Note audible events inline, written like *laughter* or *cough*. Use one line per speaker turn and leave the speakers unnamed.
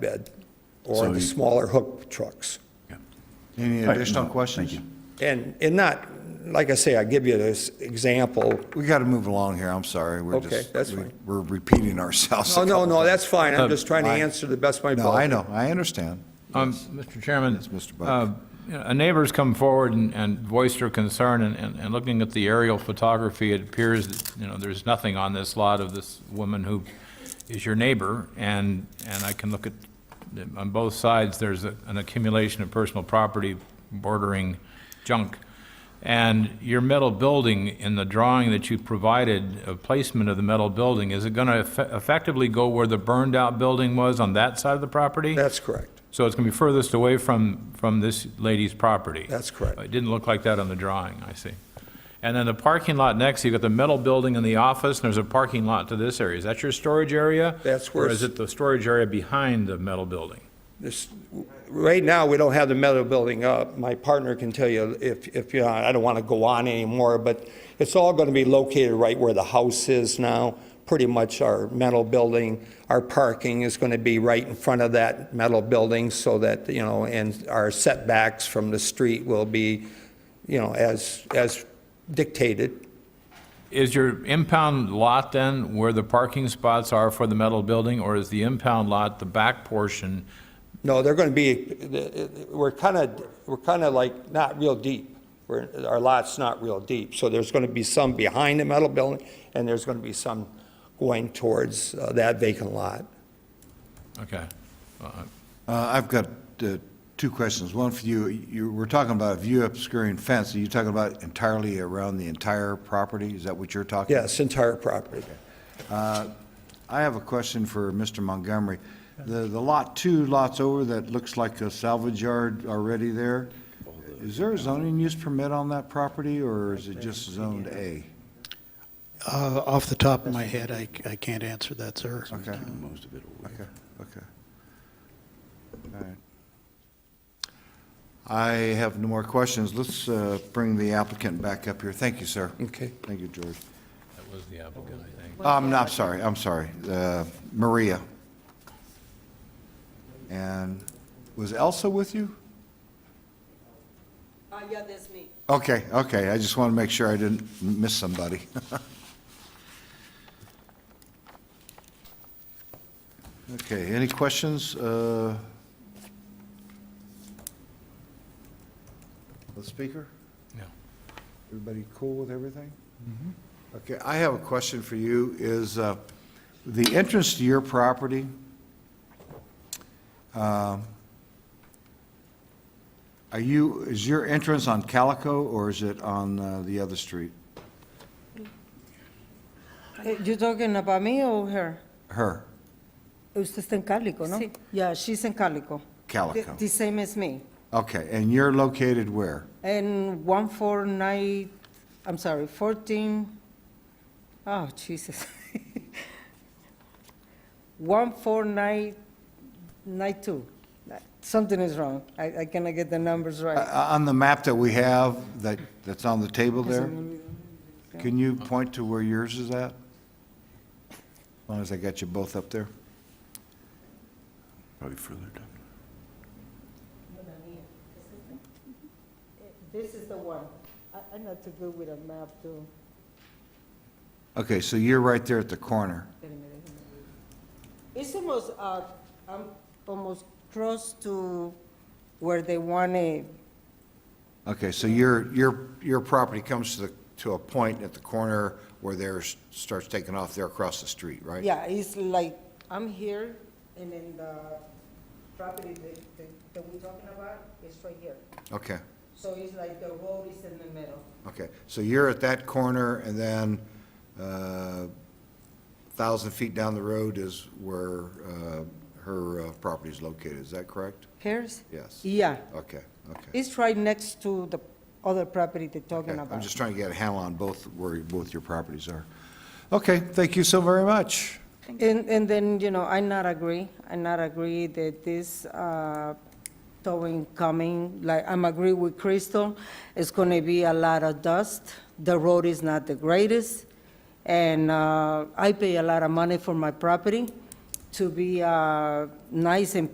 bed
So
or the
you-
smaller hook trucks.
Any
All right,
additional
no, thank
questions?
you.
And, and not, like I say, I give you this example.
We got to move along here, I'm sorry. We're
Okay,
just-
that's
we-
fine.
We're repeating ourselves.
Oh, No,
a
no,
couple
no,
times.
that's fine. I'm
Um,
just trying to
I-
answer the best of my
No, I
ability.
know, I understand.
Um, Mr. Chairman.
Yes, Mr. Buck.
uh, you know, A neighbor's come forward and- and voiced their concern, and- and and looking at the aerial photography, it appears that, you know, there's nothing on this lot of this woman who is your neighbor, and, and I can look at, on both sides, there's a- an accumulation of personal property bordering junk. And your metal building, in the drawing that you provided, a placement of the metal building, is it going to effectively go where the burned-out building was on that side of the property?
That's correct.
So it's going to be furthest away from, from this lady's property?
That's correct.
It didn't look like that on the drawing, I see. And then the parking lot next, you've got the metal building and the office, and there's a parking lot to this area. Is that your storage area?
That's where
Or is
it's-
it the storage area behind the metal building?
This, right now, we don't have the metal building up. My partner can tell you if, if, you know, I don't want to go on anymore, but it's all going to be located right where the house is now. Pretty much our metal building, our parking is going to be right in front of that metal building so that, you know, and our setbacks from the street will be, you know, as, as dictated.
Is your impound lot then where the parking spots are for the metal building, or is the impound lot the back portion?
No, they're going to be, we're kind of, we're kind of like not real deep. We're, our lot's not real deep. So there's going to be some behind the metal building and there's going to be some going towards uh, that vacant lot.
Okay.
Uh, I've got uh, two questions. One for you. You were talking about view obscuring fence. Are you talking about entirely around the entire property? Is that what you're talking?
Yes, entire property.
I have a question for Mr. Montgomery. The, the lot, two lots over, that looks like a salvage yard already there, is there a zoning use permit on that property, or is it just zoned A?
Uh, Off the top of my head, I I can't answer that, sir.
Okay,
Most of it away.
okay, okay. All right. I have no more questions. Let's uh, bring the applicant back up here. Thank you, sir.
Okay.
Thank you, George.
That was the applicant, I think.
Um, no, I'm sorry, I'm sorry. Uh, Maria. And was Elsa with you?
Uh,
Ah,
yeah, that's me.
Okay, okay, I just want to make sure I didn't miss somebody. *laughs* Okay, any questions? uh, The speaker?
Yeah.
Everybody cool with everything? Okay, I have a question for you, is uh, the entrance to your property, um, are you, is your entrance on Calico, or is it on uh, the other street?
Eh, You talking about me or her?
Her,
Usted está en Calico, ¿no? Yeah, she's in Calico. The-
Calico.
The same as me.
Okay, and you're located where?
And 149, I'm sorry, 14, oh, Jesus. *laughs* 14992. Something is wrong. I I cannot get the numbers
Uh,
right.
On the map that we have, that, that's on the table there, can you point to where yours is at? As long as I got you both up there.
Probably further down.
This is the one. I'm not too good with a map, too.
Okay, so you're right there at the corner.
It's almost, uh, um, almost close to where they want it.
Okay, so your, your, your property comes to the, to a point at the corner where theirs starts taking off there across the street, right?
Yeah, it's like, I'm here, and then the property that, that- that we're talking about is right here.
Okay,
So it's like the road is in the middle.
okay. So you're at that corner, and then uh, 1,000 feet down the road is where uh, her uh, property is located, is that correct?
Here's?
Yes.
Yeah,
Okay, okay.
it's right next to the other property they're talking
Okay,
about.
I'm just trying to get a handle on both, where both your properties are. Okay, thank you so very much.
And, and then, you know, I not agree, I not agree that this uh, towing coming, like, I'm agree with Crystal, it's gonna be a lot of dust, the road is not the greatest, and uh, I pay a lot of money for my property to be uh, nice and